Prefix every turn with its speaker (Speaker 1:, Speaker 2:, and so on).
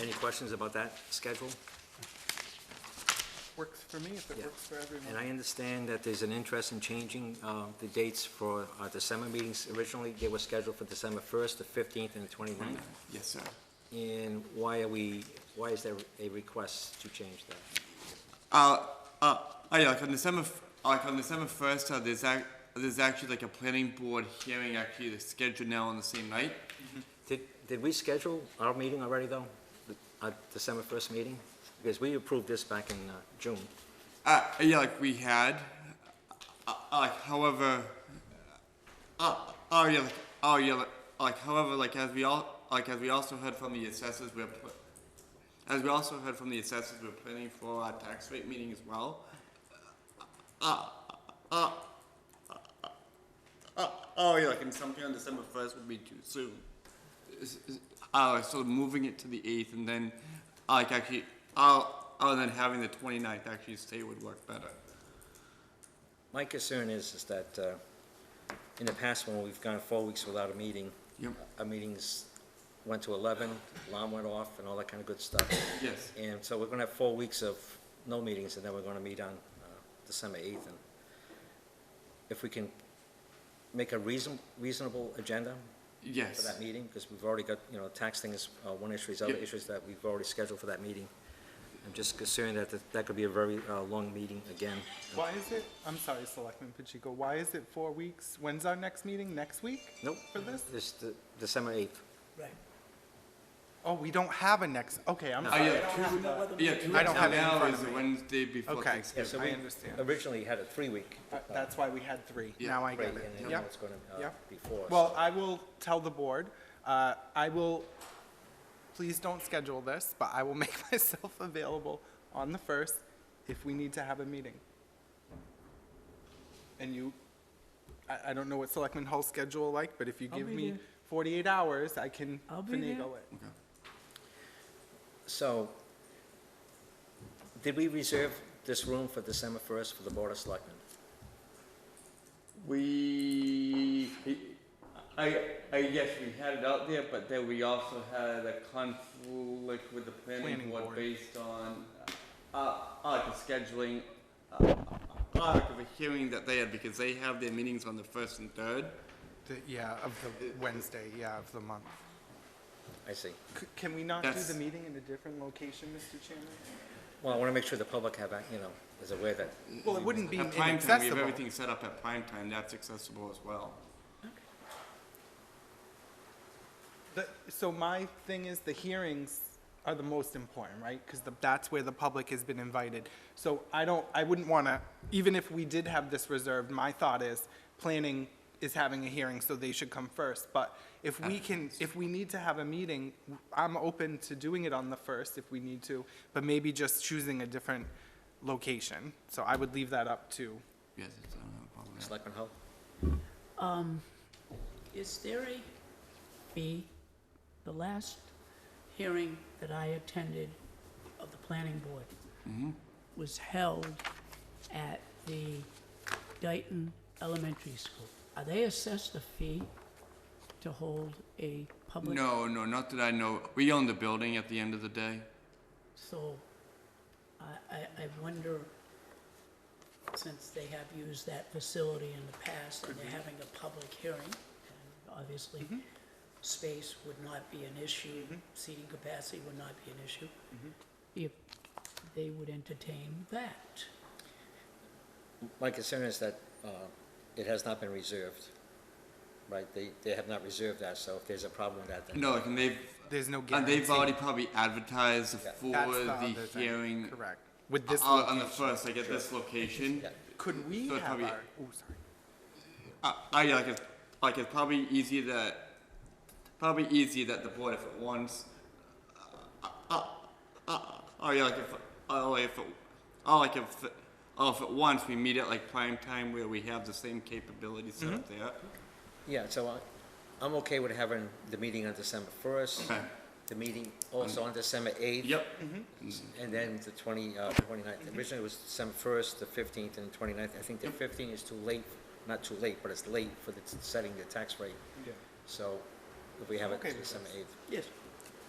Speaker 1: Any questions about that schedule?
Speaker 2: Works for me if it
Speaker 1: Yeah.
Speaker 2: works for
Speaker 1: And
Speaker 2: everyone.
Speaker 1: I understand that there's an interest in changing uh, the dates for our December meetings. Originally, they were scheduled for December 1st, the 15th, and the 29th.
Speaker 3: Yes, sir.
Speaker 1: And why are we, why is there a request to change that?
Speaker 3: Uh, uh, oh yeah, like on December, f- like on December first, uh, there's ac- there's actually like a planning board hearing actually that's scheduled now on the same night.
Speaker 1: Did, did we schedule our meeting already, though? The- Our December 1st meeting? Because we approved this back in uh, June.
Speaker 3: Uh, yeah, like we had. Uh, uh, like, however. Uh, oh yeah, like, oh yeah, like, like however, like as we all, like as we also heard from the assessors, we're. Pl- as we also heard from the assessors, we're planning for our tax rate meeting as well. Uh, uh, uh, uh, uh, oh yeah, like and something on December first would be too soon. S- s- Uh, so moving it to the eighth, and then uh, like actually, uh, uh, and then having the 29th actually stay would work better.
Speaker 1: My concern is, is that uh, in the past, when we've gone four weeks without a meeting,
Speaker 3: Yep.
Speaker 1: our meetings went to 11, alarm went off, and all that kind of good stuff.
Speaker 3: Yes.
Speaker 1: And so we're going to have four weeks of no meetings, and then we're going to meet on uh, December 8th. And If we can make a reason, reasonable agenda for
Speaker 3: Yes.
Speaker 1: that meeting, because we've already got, you know, tax thing is uh, one issue, there's other
Speaker 3: Yeah.
Speaker 1: issues that we've already scheduled for that meeting. I'm just concerned that that- that could be a very uh, long meeting again.
Speaker 2: Why is it, I'm sorry, Selectman Pacheco, why is it four weeks? When's our next meeting? Next week?
Speaker 1: Nope,
Speaker 2: For this?
Speaker 1: it's the- December 8th.
Speaker 2: Oh, we don't have a next, okay, I'm
Speaker 3: Oh
Speaker 2: sorry.
Speaker 3: yeah, two, yeah, two
Speaker 2: I don't
Speaker 3: weeks
Speaker 2: have it in
Speaker 3: now
Speaker 2: front
Speaker 3: is
Speaker 2: of
Speaker 3: the
Speaker 2: me.
Speaker 3: Wednesday before
Speaker 2: Okay.
Speaker 1: Yeah,
Speaker 3: Thanksgiving.
Speaker 1: so
Speaker 2: I
Speaker 1: we
Speaker 2: understand.
Speaker 1: Originally had a three-week.
Speaker 2: Uh, That's why we had three.
Speaker 3: Yeah.
Speaker 2: Now I
Speaker 1: break,
Speaker 2: get
Speaker 1: and
Speaker 2: it.
Speaker 1: then
Speaker 2: Yep.
Speaker 1: it's going to
Speaker 2: Yep.
Speaker 1: uh, be four.
Speaker 2: Well, I will tell the board, uh, I will, please don't schedule this, but I will make myself available on the first if we need to have a meeting. And you, I, I don't know what Selectman Hull's schedule like, but if you
Speaker 4: I'll
Speaker 2: give
Speaker 4: be
Speaker 2: me
Speaker 4: there.
Speaker 2: forty-eight hours, I can
Speaker 4: I'll be there.
Speaker 2: finagle it.
Speaker 1: So, did we reserve this room for December 1st for the Board of Selectmen?
Speaker 3: We, I, I guess we had it out there, but then we also had a conflict with the
Speaker 2: Planning
Speaker 3: planning board
Speaker 2: board.
Speaker 3: based on, uh, uh, like the scheduling, uh, uh, like of a hearing that they had, because they have their meetings on the first and third.
Speaker 2: The- Yeah, of the Wednesday, yeah, of the month.
Speaker 1: I see.
Speaker 2: C- Can we not do
Speaker 3: That's-
Speaker 2: the meeting in a different location, Mr. Chairman?
Speaker 1: Well, I want to make sure the public have, you know, is aware that,
Speaker 2: Well, it wouldn't be
Speaker 3: At prime time, we have
Speaker 2: inaccessible.
Speaker 3: everything set up at prime time, that's accessible as well.
Speaker 2: The- So my thing is the hearings are the most important, right? Because that's where the public has been invited. So I don't, I wouldn't want to, even if we did have this reserved, my thought is planning is having a hearing, so they should come first. But if
Speaker 3: Uh,
Speaker 2: we can, if we need to have a meeting, I'm open to doing it on the first if we need to, but maybe just choosing a different location. So I would leave that up to,
Speaker 3: Yes, it's, I don't have a problem with that.
Speaker 1: Selectman Hull?
Speaker 4: Is there a fee? The last hearing that I attended of the planning board was held at the Dayton Elementary School. Are they assessed a fee to hold a public?
Speaker 3: No, no, not that I know, we own the building at the end of the day.
Speaker 4: So I, I, I wonder, since they have used that facility in the past and they're having a public hearing, and obviously space would not be an issue, seating capacity would not be an issue, if they would entertain that.
Speaker 1: My concern is that uh, it has not been reserved, right? They, they have not reserved that, so if there's a problem with that, then
Speaker 3: No, like, and they've,
Speaker 2: there's no
Speaker 3: and
Speaker 2: guarantee.
Speaker 3: they've already probably advertised
Speaker 1: Yeah.
Speaker 3: for
Speaker 2: That's other
Speaker 3: the
Speaker 2: thing,
Speaker 3: hearing
Speaker 2: Correct. With this
Speaker 3: uh, on the
Speaker 2: location.
Speaker 3: first, like at this location.
Speaker 1: Yeah.
Speaker 2: Could we
Speaker 3: So
Speaker 2: have
Speaker 3: it's probably-
Speaker 2: our, oh, sorry.
Speaker 3: Uh, I yeah, like it's like it's probably easier that probably easier that the board if it wants. Uh, uh, uh, oh yeah, like if oh like if it, oh like if it- oh if it wants, we meet at like prime time where we have the same capability set up there.
Speaker 1: Yeah, so I- I'm okay with having the meeting on December 1st,
Speaker 3: Okay.
Speaker 1: the meeting also on December 8th.
Speaker 3: Yep.
Speaker 1: And then the 20, uh, 29th, originally it was December 1st, the 15th, and the 29th. I think the 15th is too late, not too late, but it's late for the, setting the tax rate.
Speaker 2: Yeah.
Speaker 1: So if we have it
Speaker 2: Okay
Speaker 1: to
Speaker 2: with
Speaker 1: December 8th.
Speaker 4: Yes.